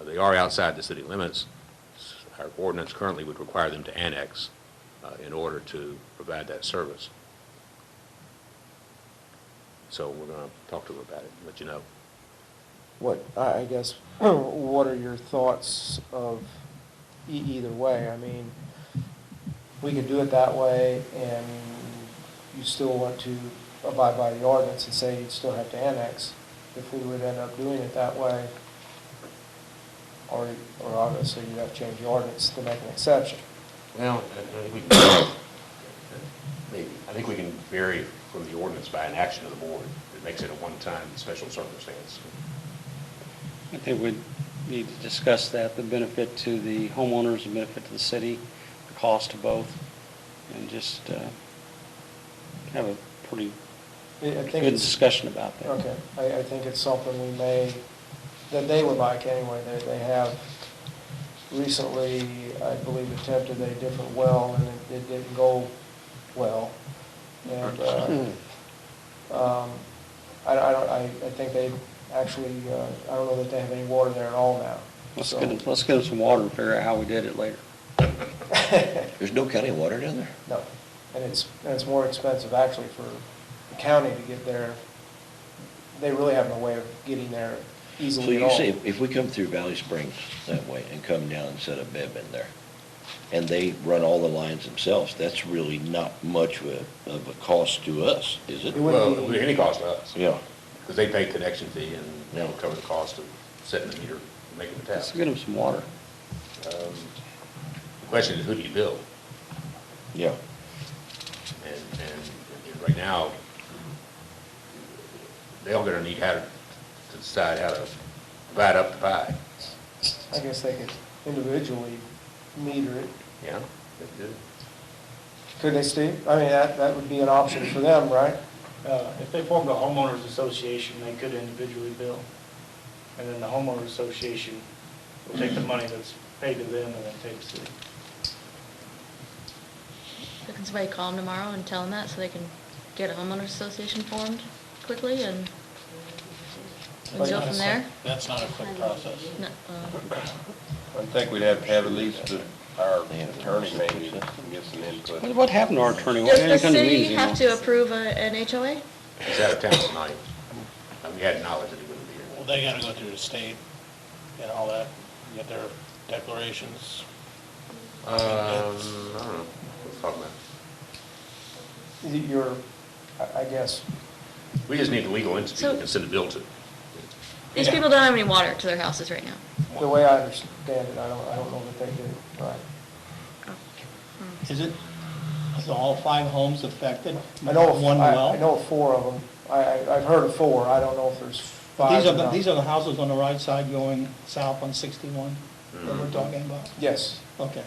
They are outside the city limits. Our ordinance currently would require them to annex uh, in order to provide that service. So we're going to talk to them about it, and let you know. What, I, I guess, what are your thoughts of e- either way? I mean, we could do it that way and you still want to abide by the ordinance and say you'd still have to annex if we would end up doing it that way. Or, or obviously you'd have to change the ordinance to make an exception. Well, I I think we can, maybe, I think we can vary from the ordinance by an action of the board. It makes it a one-time special circumstance. I think we need to discuss that, the benefit to the homeowners, the benefit to the city, the cost to both, and just uh, have a pretty I- I think good it's- discussion about that. Okay, I, I think it's something we may, that they would like anyway, they, they have recently, I believe, attempted a different well, and it, it didn't go well, and, Hmm. uh, um, I, I don't, I, I think they actually, uh, I don't know that they have any water there at all now. Let's So- get, 'em- let's get 'em some water and figure out how we did it later. There's no county water down there? No, and it's, and it's more expensive actually for the county to get there, they really have no way of getting there So easily at you all. say, if- if we come through Valley Springs that way and come down and set a bib in there, and they run all the lines themselves, that's really not much of a, of a cost to us, is it? It would- Well, it would be any cost to us, Yeah, because they pay connection fee and they'll cover the cost of setting the meter, and making the tap. Let's get 'em some water. Um, The question is, who do you bill? yeah. And, and and right now, they all gonna need how to to decide how to divide up the pie, I guess they could individually meter it. you know? They do. Could they, Steve? I mean, that, that would be an option for them, right? Uh, If they formed a homeowners association, they could individually bill. And then the homeowners association will take the money that's paid to them and then take to the So Can somebody call them tomorrow and tell them that so they can get a homeowners association formed quickly and and go from there? That's not a quick process. No, uh, I think we'd have to have at least our attorney maybe get some input. What what happened to our attorney? Why didn't he Does the come to city meetings have to anymore? approve a- an HOA? He's out of town tonight. Um, He had knowledge that he wouldn't be Well, here. they gotta go through the state and all that, and get their declarations. Um, I don't know, we're talking about, Your, I I guess, we just need the legal entity So- we can send the bill to. These people don't have any water to their houses right now. the way I understand it, I don't, I don't know that they do, right? Is it, is all five homes affected? I know, of- One well? I, I know of four of them. I, I- I've heard of four. I don't know if there's five These or are, the- not. these are the houses on the right side going south on sixty-one that we're talking about? Yes. Okay.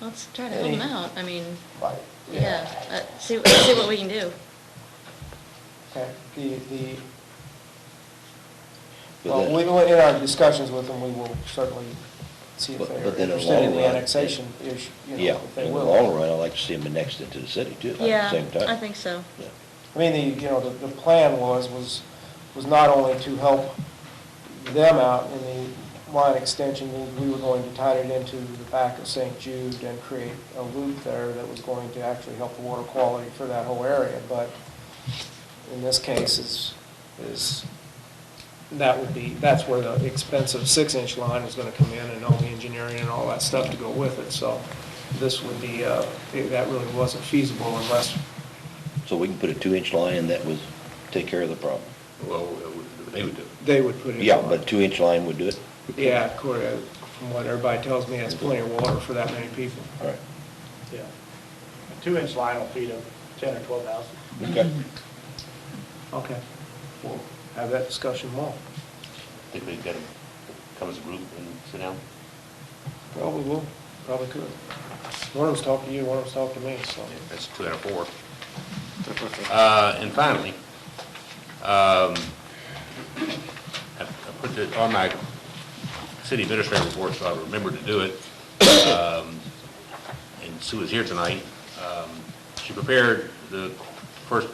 Let's try to help them out. I mean, Right. yeah, uh, see, let's see what we can do. Okay, the, the, But well, that- we, we- in our discussions with them, we will certainly see if But- they but are then in the interested in long the run, annexation issue, you know, Yeah, if they in the will. long run, I'd like to see them annexed into the city too, at the Yeah, same time. I think so. Yeah. I mean, the, you know, the, the plan was, was, was not only to help them out in the line extension, we- we were going to tie it into the back of St. Jude and create a loop there that was going to actually help the water quality for that whole area, but in this case is, is, that would be, that's where the expensive six-inch line is gonna come in and all the engineering and all that stuff to go with it, so this would be, uh, that really wasn't feasible unless So we can put a two-inch line in that would take care of the problem. Well, uh, they would do. it. they would put it. Yeah, but a two-inch line would do it? Yeah, according, from what everybody tells me, that's plenty of water for that many people. All right. Yeah. A two-inch line will feed a 10 or 12 houses. Okay. Okay. We'll have that discussion more. Think we'd get them, come as a group and sit down? Probably will, probably could. One of them's talking to you, one of them's talking to me, so. Yeah, That's two out of four. Uh, And finally, um, I I put it on my city administrator report, so I remembered to do it. Um, And Sue is here tonight. Um, She prepared the first